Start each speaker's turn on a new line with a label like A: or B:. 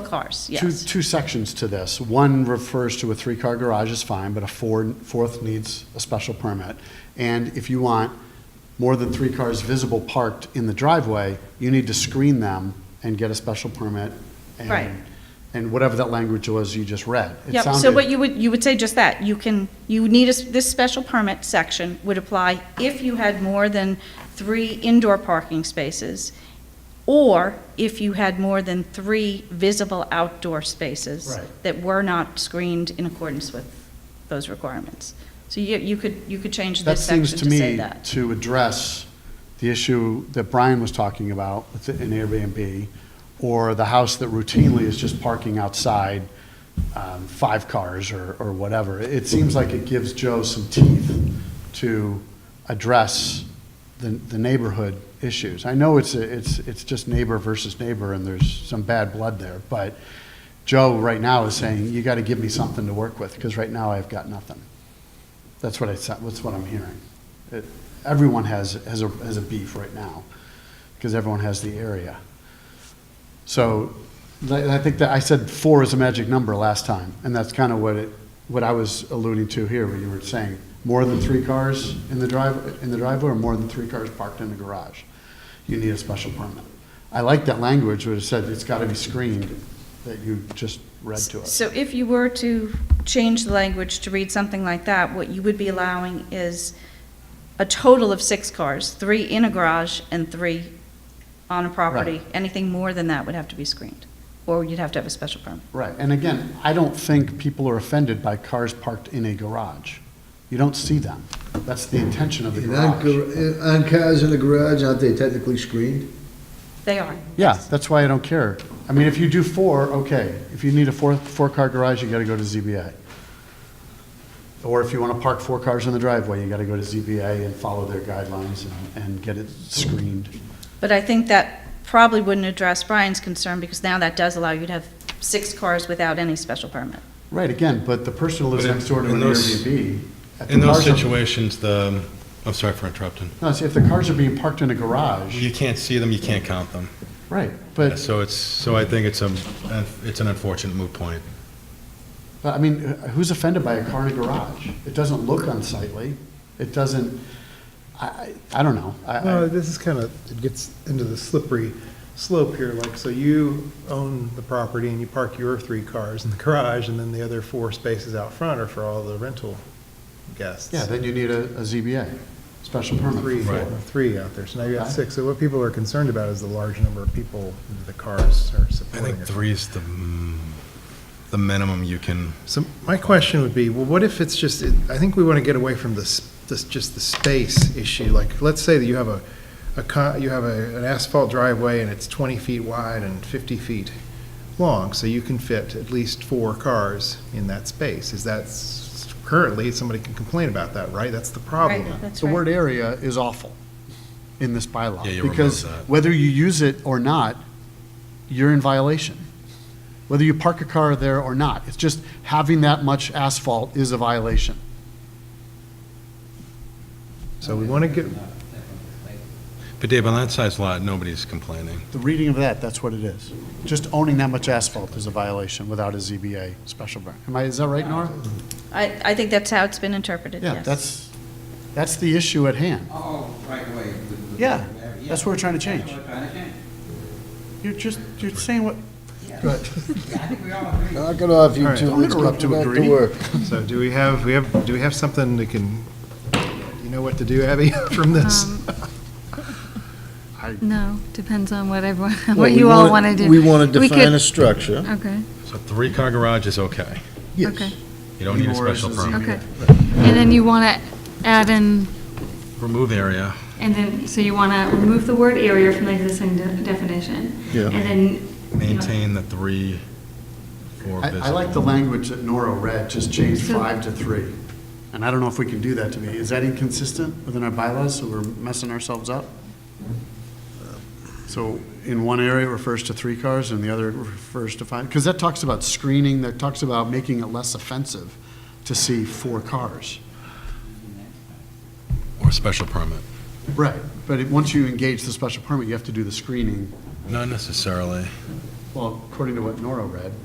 A: cars,
B: Two,
A: yes.
B: two sections to this. One refers to a three-car garage is fine, but a four, fourth needs a special permit. And if you want more than three cars visible parked in the driveway, you need to screen them and get a special permit. and-
A: Right.
B: And whatever that language was you just read. It
A: Yep, so
B: sounded-
A: what you would, you would say just that, you can, you need a, s- this special permit section would apply if you had more than three indoor parking spaces, or if you had more than three visible outdoor spaces
B: Right.
A: that were not screened in accordance with those requirements. So you, you could, you could change
B: That
A: this
B: seems
A: section
B: to
A: to say
B: me
A: that.
B: to address the issue that Brian was talking about with the- an Airbnb, or the house that routinely is just parking outside, um, five cars or, or whatever. It seems like it gives Joe some teeth to address the, the neighborhood issues. I know it's, a- it's, it's just neighbor versus neighbor, and there's some bad blood there, but Joe right now is saying, you gotta give me something to work with, because right now I've got nothing. That's what I, sa- that's what I'm hearing. It- Everyone has, has a, has a beef right now, because everyone has the area. So, I I think that, I said four is a magic number last time, and that's kind of what it, what I was alluding to here, when you were saying, more than three cars in the drive, in the driveway, or more than three cars parked in the garage, you need a special permit. I like that language, where it said it's got to be screened, that you just read to us.
A: So if you were to change the language to read something like that, what you would be allowing is a total of six cars, three in a garage and three on a property.
B: Right.
A: Anything more than that would have to be screened, or you'd have to have a special permit.
B: Right, and again, I don't think people are offended by cars parked in a garage. You don't see them. That's the intention of the
C: And on
B: garage.
C: gar- and on cars in the garage, aren't they technically screened?
A: They are.
B: Yeah, that's why I don't care. I mean, if you do four, okay. If you need a four, four-car garage, you gotta go to ZBA. Or if you wanna park four cars in the driveway, you gotta go to ZBA and follow their guidelines and, and get it screened.
A: But I think that probably wouldn't address Brian's concern, because now that does allow you to have six cars without any special permit.
B: Right, again, but the person who lives
D: But in-
B: next door to
D: in
B: an
D: those-
B: Airbnb. if the
D: In those
B: cars are-
D: situations, the, I'm sorry for interrupting.
B: No, see, if the cars are being parked in a garage,
D: You can't see them, you can't count them.
B: right, but
D: So it's, so I think it's a, it's an unfortunate moot point.
B: But I mean, who's offended by a car in a garage? It doesn't look unsightly. It doesn't, I, I, I don't know. I,
E: No,
B: I,
E: this is kind of, it gets into the slippery slope here, like, so you own the property and you park your three cars in the garage, and then the other four spaces out front are for all the rental guests.
B: yeah, then you need a, a ZBA, special permit.
E: Three,
B: for it.
E: three out there, so now you got
B: Okay.
E: six, so what people are concerned about is the large number of people the cars are
D: I
E: supporting.
D: think
E: or-
D: three is the, mm, the minimum you can,
E: So my question would be, well, what if it's just, I think we want to get away from this, this, just the space issue. Like, let's say that you have a, a, co- you have a- an asphalt driveway and it's 20 feet wide and 50 feet long, so you can fit at least four cars in that space. Is that, s- currently, somebody can complain about that, right? That's the problem.
A: Right, that's
B: The
A: right.
B: word area is awful in this bylaw.
D: Yeah, you remove
B: Because
D: that.
B: whether you use it or not, you're in violation. Whether you park a car there or not, it's just having that much asphalt is a violation.
E: So we want to get,
D: but Dave, on that size lot, nobody's complaining.
B: The reading of that, that's what it is. Just owning that much asphalt is a violation without a ZBA special permit. Am I, is that right, Nora?
A: I, I think that's how it's been interpreted, yes.
B: Yeah, that's, that's the issue at hand.
F: Oh, right away. with- with-
B: Yeah, that's what we're trying to
F: That's
B: change.
F: what we're trying to change.
B: You're just, you're saying what,
F: Yeah, I think we all agree.
C: Knock it off, you
E: All right.
C: two.
B: Don't
C: Let's get
B: interrupt, you
C: back
B: greedy.
C: to work.
E: so do we have, we have, do we have something that can, you know what to do, Abby, from this?
G: No, depends on what everyone,
C: Well,
G: what
C: we
G: you all want
C: wanna-
G: to do.
C: We want to
G: We could-
C: define a structure.
G: Okay,
D: So three-car garage is okay.
C: Yes.
G: okay,
D: You don't need a
B: Nor is
D: special
B: a
D: permit.
G: okay. And then you want to add in,
D: Remove area,
G: and then, so you want to remove the word area from the existing de- definition.
C: Yeah.
G: And then. you know,
D: maintain the three, four
B: I,
D: visible.
B: I like the language that Nora read, just change
G: So-
B: five to three. And I don't know if we can do that to me. Is that inconsistent within our bylaws, so we're messing ourselves up? So in one area it refers to three cars and the other it refers to five? Because that talks about screening, that talks about making it less offensive to see four cars.
D: Or special permit.
B: Right, but it- once you engage the special permit, you have to do the screening
D: Not necessarily.
B: Well, according to what Nora read,